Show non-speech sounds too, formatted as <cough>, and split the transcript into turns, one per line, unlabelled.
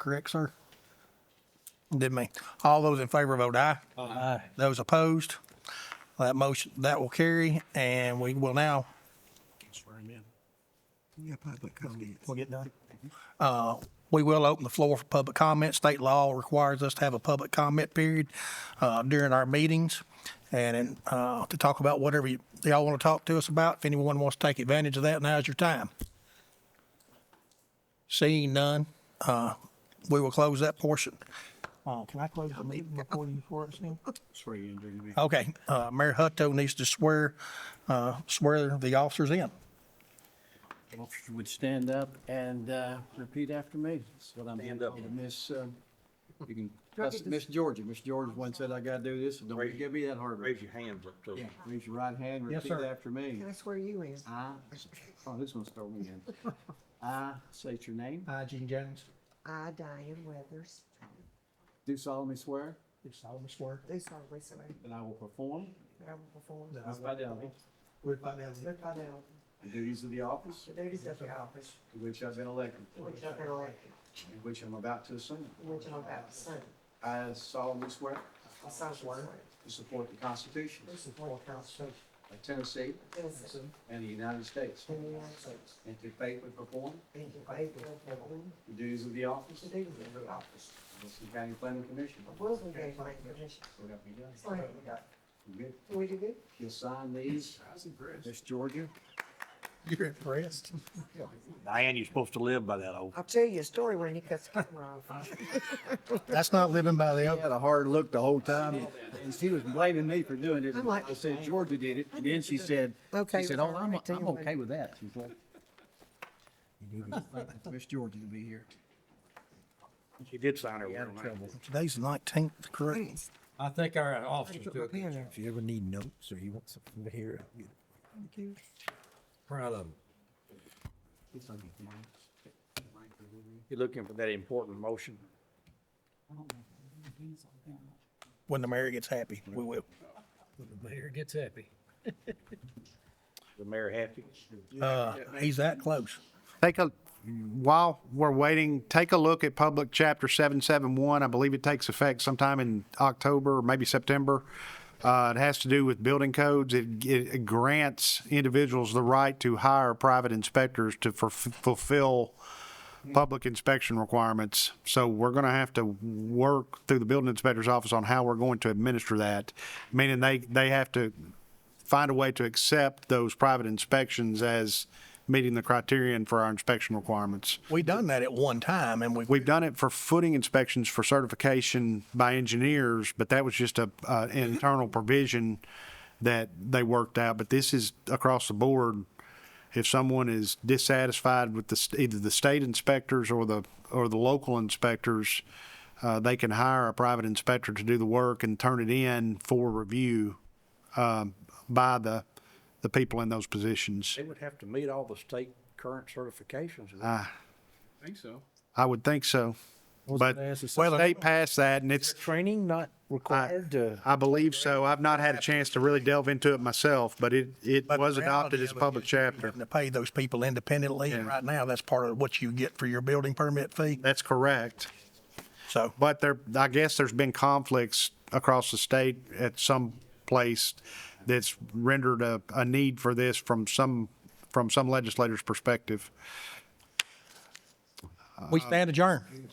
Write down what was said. correct, sir? Didn't mean. All those in favor vote aye. Aye. Those opposed, that motion, that will carry, and we will now,
Yeah, public comments.
We'll get done.
uh, we will open the floor for public comment. State law requires us to have a public comment period, uh, during our meetings. And, and, uh, to talk about whatever you, y'all want to talk to us about. If anyone wants to take advantage of that, now's your time. Seeing none, uh, we will close that portion. Uh, can I close the meeting before you, before it's in? Okay, uh, Mayor Hutto needs to swear, uh, swear the officers in.
If you would stand up and uh, repeat after me. That's what I'm. Stand up. Miss, um, you <laughs> can, that's Miss Georgia. Miss Georgia once said, I gotta do this, so don't give me that hard.
Raise your hands up, so.
Yeah, Raise your right hand,
Yes,
repeat
sir.
after me.
That's where you is.
I, oh, this one's throwing me <laughs> in. I state your name,
I, Gene Jones,
I, Diane Weathers,
do solemnly swear
do solemnly swear
do solemnly swear
that I will perform
that I will perform
that I
with fidelity
with fidelity
with fidelity
the duties of the office
the duties of the office
to which I've been elected,
to which I've been elected,
and which I'm about to assume.
and which I'm about to serve.
I solemnly swear
I solemnly swear
to support the Constitution
to support the Constitution
of Tennessee
of Tennessee
and the United States,
and the United States,
and to faithfully perform
and to faithfully perform
The duties of the office
the
of
duties of the office
Wilson County Planning Commission.
of Wilson County Planning Commission.
So help me God.
So help me God.
You good?
Can we do good?
You'll sign these. Miss Georgia.
You're impressed.
Diane, you're supposed to live by that oath.
I'll tell you a story when you cut the camera off.
That's not living by the oath.
Had a hard look the whole time, and she was blaming me for doing it.
I'm like-
I said Georgia did it, and then she said,
Okay,
she said,
all
oh, I'm,
right, then
I'm
we'll-
okay with that. She's like, "You need to thank Miss Georgia to be here.
She did sign her
Out
word
of
on that.
trouble.
Today's the nineteenth, correct?
Thanks.
I think our
I
officers
put
do
my
a good
pen
job.
out.
If you ever need notes or you want something to hear, you're
Thank you.
proud of them.
It's like, "Mike, Mike,
You're looking for that important motion.
When the mayor gets happy, we will.
The mayor gets happy.
The mayor happy.
Uh, he's that close.
Take a, while we're waiting, take a look at Public Chapter 771. I believe it takes effect sometime in October, or maybe September. Uh, It has to do with building codes. It it grants individuals the right to hire private inspectors to fulf- fulfill public inspection requirements. So we're going to have to work through the building inspector's office on how we're going to administer that, meaning they, they have to find a way to accept those private inspections as meeting the criterion for our inspection requirements.
We done that at one time and we,
We've done it for footing inspections for certification by engineers, but that was just a, uh, internal provision that they worked out, but this is across the board. If someone is dissatisfied with the, st- either the state inspectors or the, or the local inspectors, uh, they can hire a private inspector to do the work and turn it in for review, um, by the, the people in those positions.
They would have to meet all the state current certifications.
Ah. I would think so. But
Well,
state passed that and it's,
Training not required to.
I believe so. I've not had a chance to really delve into it myself, but it, it
But the
was adopted
reality
as a
of it
public
is you're
chapter.
having To pay those people independently. And right now, that's part of what you get for your building permit fee.
That's correct.
So
But there, I guess there's been conflicts across the state at some place that's rendered a, a need for this from some, from some legislator's perspective.
we stand adjourned.